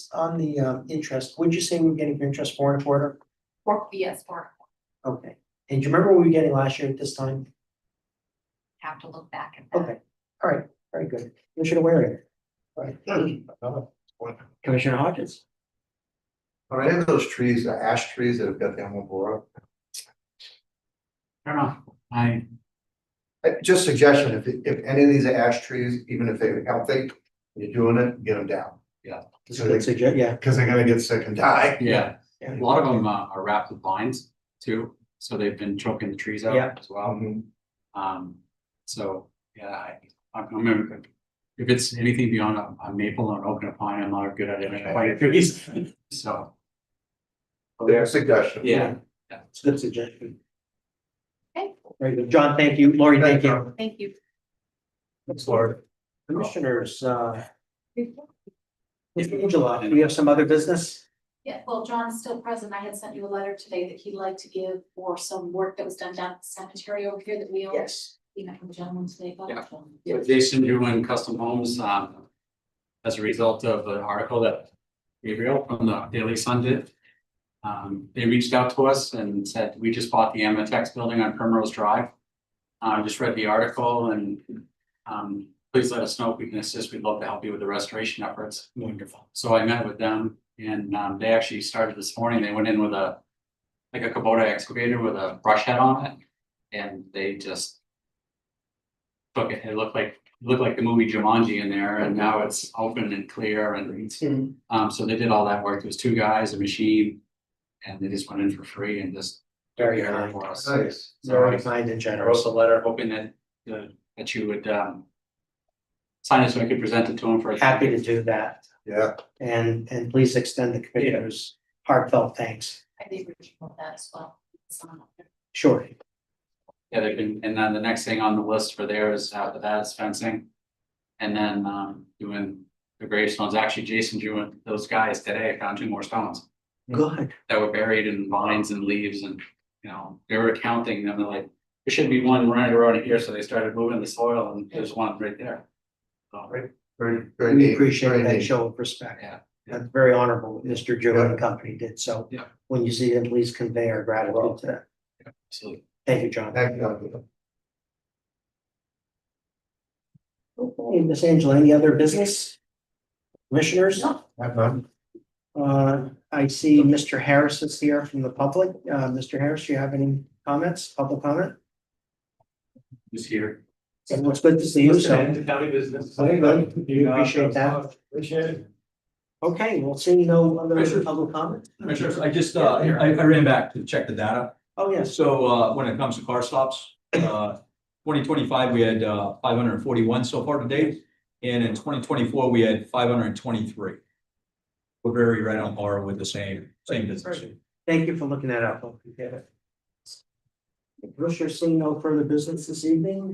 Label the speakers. Speaker 1: on the um interest, would you say we we're getting for interest four and a quarter?
Speaker 2: Four, yes, four,
Speaker 1: Okay, and do you remember what we were getting last year at this time?
Speaker 2: have to look back at that.
Speaker 1: Okay, all right, very good. Commissioner Waring. All right, Commissioner Hodges.
Speaker 3: Are any of those trees, the ash trees that have got the animal blower?
Speaker 4: I don't know, I,
Speaker 3: Uh, Just suggestion, if, if any of these are ash trees, even if they're healthy, you're doing it, get them down.
Speaker 1: This is a good suggestion, yeah.
Speaker 3: Because they're gonna get sick and die.
Speaker 4: yeah,
Speaker 1: Yeah.
Speaker 4: a lot of them uh, are wrapped with vines too, so they've been choking the trees out
Speaker 1: Yeah.
Speaker 4: as well.
Speaker 3: Um,
Speaker 4: Um, so, yeah, I, I'm, I'm, gonna- if it's anything beyond a a maple or an oak pine, I'm not good at identifying trees, so.
Speaker 3: their suggestion.
Speaker 4: Yeah,
Speaker 1: It's a good suggestion.
Speaker 2: Okay.
Speaker 1: Very good. John, thank you. Lori, thank you.
Speaker 2: Thank you.
Speaker 3: Thanks, Lord.
Speaker 1: Commissioners, uh, Mr. Angela, do you have some other business?
Speaker 2: Yeah, well, John's still present. I had sent you a letter today that he'd like to give for some work that was done down at the cemetery over here that we own.
Speaker 1: Yes.
Speaker 2: You know, from the gentleman today, but.
Speaker 4: Yeah.
Speaker 2: um,
Speaker 4: So Jason Drewen Custom Homes, um, as a result of an article that Gabriel from the Daily Sun did. Um, they reached out to us and said, we just bought the Amatex building on Primrose Drive. I just read the article and, um, please let us know if we can assist. We'd love to help you with the restoration efforts. Wonderful. So I met with them and, um, they actually started this morning. They went in with a, like a Kubota excavator with a brush head on it. And they just took it, it looked like, it looked like the movie Jumanji in there, and now it's open and clear and.
Speaker 1: Mhm.
Speaker 4: Um, so they did all that work, there was two guys, a machine, and they just went in for free and just. took
Speaker 1: Very
Speaker 4: care of
Speaker 1: kind.
Speaker 4: it For us.
Speaker 3: Nice.
Speaker 4: So
Speaker 1: Very
Speaker 4: I
Speaker 1: kind and
Speaker 4: I
Speaker 1: generous.
Speaker 4: wrote a letter hoping that, uh, that you would, um. Sign it so I could present it to them for. a-
Speaker 1: Happy to do that.
Speaker 3: Yeah,
Speaker 1: And, and please extend the commissioners heartfelt thanks.
Speaker 2: I think we should put that as well. It's on there.
Speaker 1: Sure.
Speaker 4: Yeah, they've been, and then the next thing on the list for there is after that is fencing. And then, um, doing the gravestones, actually Jason drew those guys today, I found two more stones.
Speaker 1: Good.
Speaker 4: that were buried in vines and leaves and, you know, they were counting them, they're like, there should be one running around here, so they started moving the soil and there's one right there. Oh, So,
Speaker 3: very, very
Speaker 1: We
Speaker 3: neat.
Speaker 1: appreciate
Speaker 3: very
Speaker 1: that
Speaker 3: neat.
Speaker 1: show of respect.
Speaker 4: Yeah.
Speaker 1: That's very honorable, what Mr. Joe and company did. So
Speaker 4: Yeah.
Speaker 1: when you see them, please convey our gratitude to them.
Speaker 4: absolutely.
Speaker 1: Thank you, John.
Speaker 3: Thank you.
Speaker 1: Okay, Miss Angela, any other business? Commissioners?
Speaker 3: Have fun.
Speaker 1: Uh, I see Mr. Harris is here from the public. Uh, Mr. Harris, do you have any comments, public comment?
Speaker 4: Who's here?
Speaker 1: And it's good to see you, so.
Speaker 5: county business.
Speaker 1: Very good. We appreciate that.
Speaker 5: Appreciate it.
Speaker 1: Okay, well, seeing no other
Speaker 5: Commissioner.
Speaker 1: public comment?
Speaker 5: Commissioners, I just, uh, I, I ran back to check the data.
Speaker 1: Oh, yes.
Speaker 5: So, uh, when it comes to car stops, uh, twenty twenty-five, we had, uh, five hundred and forty-one so far to date. And in twenty twenty-four, we had five hundred and twenty-three. We're very right on par with the same, same business.
Speaker 1: Thank you for looking that up. Hope you get it. Commissioner, seeing no further business this evening,